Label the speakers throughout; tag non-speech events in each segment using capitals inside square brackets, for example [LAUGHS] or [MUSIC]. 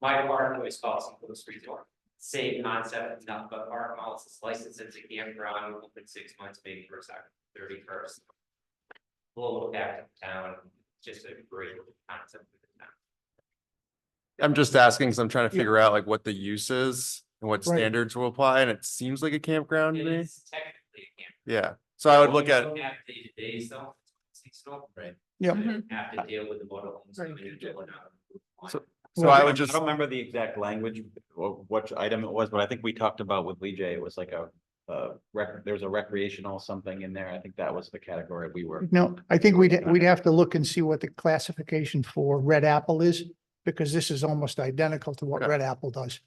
Speaker 1: My park always calls them close resort. Same concept, not but park models is licensed as a campground, open six months, maybe first, thirty first. Blow it back to town, just a great concept for the town.
Speaker 2: I'm just asking, because I'm trying to
Speaker 3: Yeah.
Speaker 2: figure out like what the use is and what
Speaker 3: Right.
Speaker 2: standards will apply, and it seems like a campground to
Speaker 1: It
Speaker 2: me.
Speaker 1: is technically a camp.
Speaker 2: Yeah, so I would
Speaker 1: When
Speaker 2: look
Speaker 1: you
Speaker 2: at,
Speaker 1: don't Have day to day stuff, seasonal. Right.
Speaker 3: Yeah.
Speaker 2: Mm-hmm.
Speaker 1: Have to deal with the water lines
Speaker 3: Right.
Speaker 1: coming in, going out.
Speaker 2: So-
Speaker 3: Well,
Speaker 2: so I
Speaker 3: I
Speaker 2: would
Speaker 4: don't-
Speaker 2: just,
Speaker 4: I don't remember the exact language, or what item it was, but I think we talked about with Lee J, it was like a. Uh, rec, there was a recreational something in there. I think that was the category we were.
Speaker 3: No, I think we'd, we'd have to look and see what the classification for red apple is, because this is almost identical to what
Speaker 2: Okay.
Speaker 3: red apple does.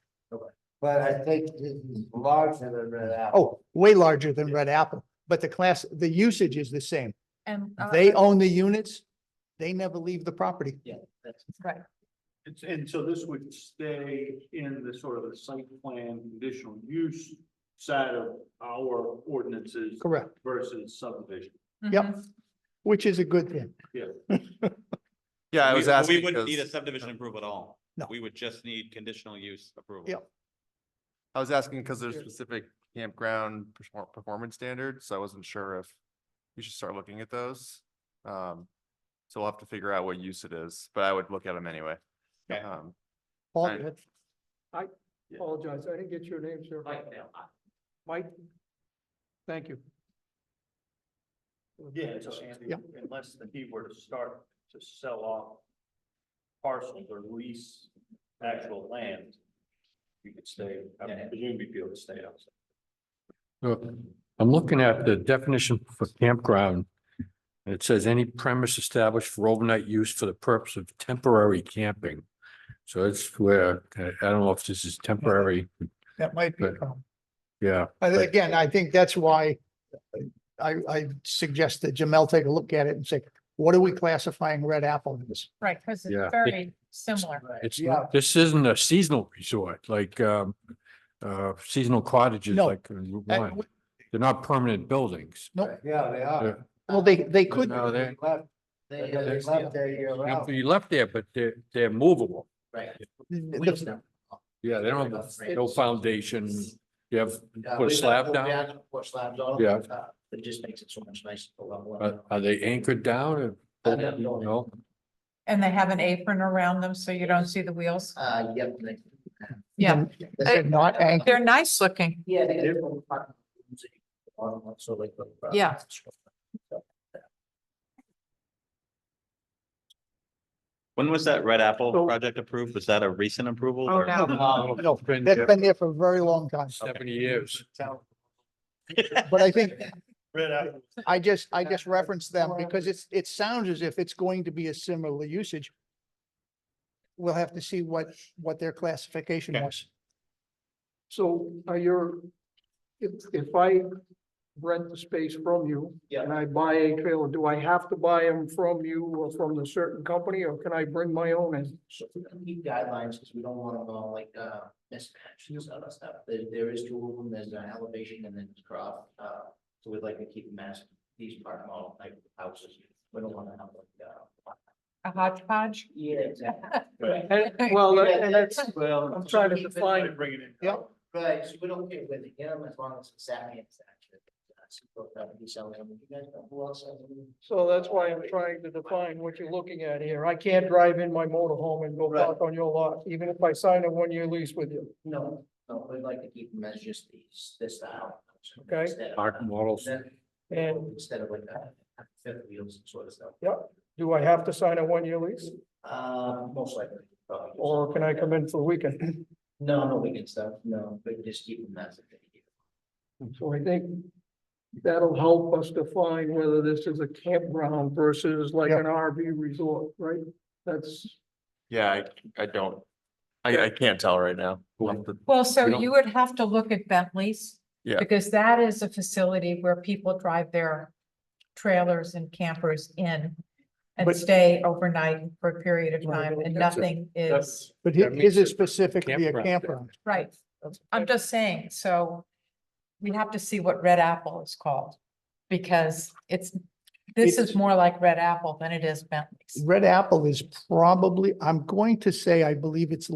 Speaker 5: But I think this is larger than Red Apple.
Speaker 3: Oh, way larger than red apple, but the class, the usage is the same.
Speaker 6: And.
Speaker 2: Oh,
Speaker 6: uh,
Speaker 3: They
Speaker 6: uh,
Speaker 3: own the units. They never leave the property.
Speaker 6: Right,
Speaker 7: And, and so this would stay in the sort of the site plan conditional use side of our ordinances
Speaker 3: Correct,
Speaker 7: versus subdivision.
Speaker 3: Yep.
Speaker 2: Mm-hmm.
Speaker 6: mhm.
Speaker 3: which is a good thing.
Speaker 2: yeah, I was
Speaker 4: We- well,
Speaker 2: asking
Speaker 4: We wouldn't need a
Speaker 2: because,
Speaker 4: subdivision approval at all.
Speaker 3: No.
Speaker 4: We would just need conditional use approval.
Speaker 3: Yep.
Speaker 2: I was asking because there's specific campground perfor- performance standards, so I wasn't sure if we should start looking at those. Um, so we'll have to figure out what use it is, but I would look at them anyway.
Speaker 4: Okay.
Speaker 2: Um,
Speaker 3: Paul,
Speaker 2: Right.
Speaker 3: that's-
Speaker 8: Apologize, I didn't get your name, sir.
Speaker 1: Like that.
Speaker 8: Mike? Thank you.
Speaker 7: Yeah, so Andy,
Speaker 3: Yep.
Speaker 7: unless the he were to start to sell off parcels or lease actual land, you could stay, I presume you'd be able to stay outside.
Speaker 8: So, I'm looking at the definition for campground. and It says any premise established for overnight use for the purpose of temporary camping. So it's where, I I don't know if this is temporary,
Speaker 3: that might be.
Speaker 8: But-
Speaker 3: a problem.
Speaker 8: yeah.
Speaker 3: I thi-
Speaker 8: but-
Speaker 3: Again, I think that's why I, I suggest that Jamel take a look at it and say, what are we classifying red apple as?
Speaker 6: right, because
Speaker 8: Yeah.
Speaker 6: it's very similar.
Speaker 8: It's
Speaker 3: Yeah.
Speaker 8: not, this isn't a seasonal resort, like, um, uh, seasonal cottages,
Speaker 3: No.
Speaker 8: like, in Route
Speaker 3: And
Speaker 8: one.
Speaker 3: w-
Speaker 8: they're not permanent buildings.
Speaker 3: No,
Speaker 5: Yeah, they are.
Speaker 3: well, they, they could,
Speaker 8: No,
Speaker 5: They
Speaker 8: they're,
Speaker 5: left, they
Speaker 8: Yeah,
Speaker 5: they
Speaker 8: there's-
Speaker 5: left there year round.
Speaker 8: you left there, but they're, they're movable.
Speaker 5: We
Speaker 3: the-
Speaker 5: don't know.
Speaker 8: Yeah, they don't have
Speaker 5: Right.
Speaker 8: no foundation. You have,
Speaker 5: Yeah,
Speaker 8: put a
Speaker 5: we
Speaker 8: slab
Speaker 5: left them
Speaker 8: down,
Speaker 5: Put slabs on.
Speaker 8: Yeah.
Speaker 5: them, uh, It just makes it so much nicer to level
Speaker 8: are,
Speaker 5: up.
Speaker 8: are they anchored down or?
Speaker 5: I don't know.
Speaker 8: No,
Speaker 6: And they have an apron around them so you don't see the wheels.
Speaker 5: Uh, yep. they-
Speaker 6: Yeah,
Speaker 3: they're not anchored.
Speaker 6: they're nice looking.
Speaker 5: Yeah, they did. On, so they put, uh,
Speaker 6: Yeah.
Speaker 4: When was that Red Apple
Speaker 3: So-
Speaker 4: project approved? Was that a recent approval?
Speaker 6: Oh,
Speaker 4: or-
Speaker 6: no.
Speaker 3: No, no,
Speaker 8: Been
Speaker 3: That's
Speaker 8: there
Speaker 3: been there for a very long time.
Speaker 8: seventy years.
Speaker 3: But I think
Speaker 7: Red apple.
Speaker 3: I just, I just referenced them because it's, it sounds as if it's going to be a similar usage. We'll have to see what, what their classification was.
Speaker 8: So are your, if, if I rent the space from you
Speaker 5: Yeah.
Speaker 8: and I buy a trailer, do I have to buy them from you or from the certain company or can I bring my own in?
Speaker 5: So we don't need guidelines, because we don't want them all like, uh, mismatched and other stuff, there, there is two of them, there's an elevation and then it's crop, uh, so we'd like to keep them as these part model type houses, we don't wanna have
Speaker 6: [LAUGHS]
Speaker 5: like, uh.
Speaker 6: A hodgepodge.
Speaker 5: Yeah, exactly.
Speaker 8: well,
Speaker 5: that- and that's-
Speaker 8: well,
Speaker 5: I'm trying to define it.
Speaker 7: Bring it in.
Speaker 3: Yep.
Speaker 5: Right, so we don't care where they get them, as long as it's uh, savvy and saturated. He sells them, you guys know who else sells them?
Speaker 8: So that's why I'm trying to define what you're looking at here. I can't drive in my motor home and go
Speaker 5: Right.
Speaker 8: park on your lot, even if I sign a one-year lease with you.
Speaker 5: No, no, we'd like to keep them as just these, this style.
Speaker 8: Okay.
Speaker 5: Instead of-
Speaker 8: Park models. And-
Speaker 5: Instead of like, uh, fifth wheels and sort of stuff.
Speaker 8: Do I have to sign a one-year lease
Speaker 5: Uh, most likely. probably.
Speaker 8: or can I come in for the weekend?
Speaker 5: No, no weekend stuff, no, but just keep them as a thing.
Speaker 8: So I think that'll help us define whether this is a campground versus like
Speaker 3: Yeah.
Speaker 8: an RV resort, right? That's,
Speaker 2: yeah, I, I don't, I, I can't tell right now. We'll have to-
Speaker 6: Well, so
Speaker 2: We don't-
Speaker 6: you would have to look at Bentley's.
Speaker 2: Yeah.
Speaker 6: Because that is a facility where people drive their trailers and campers in and
Speaker 3: But-
Speaker 6: stay overnight for a period of time and
Speaker 8: That's a-
Speaker 6: nothing is,
Speaker 3: But
Speaker 8: That
Speaker 3: hi-
Speaker 8: makes
Speaker 3: his is
Speaker 8: it
Speaker 3: specifically a
Speaker 8: campground there.
Speaker 3: campground.
Speaker 6: right. I'm just saying, so we have to see what Red Apple is called because it's This is more like Red Apple than it is Bentley's.
Speaker 3: Red Apple is probably, I'm going to say, I believe it's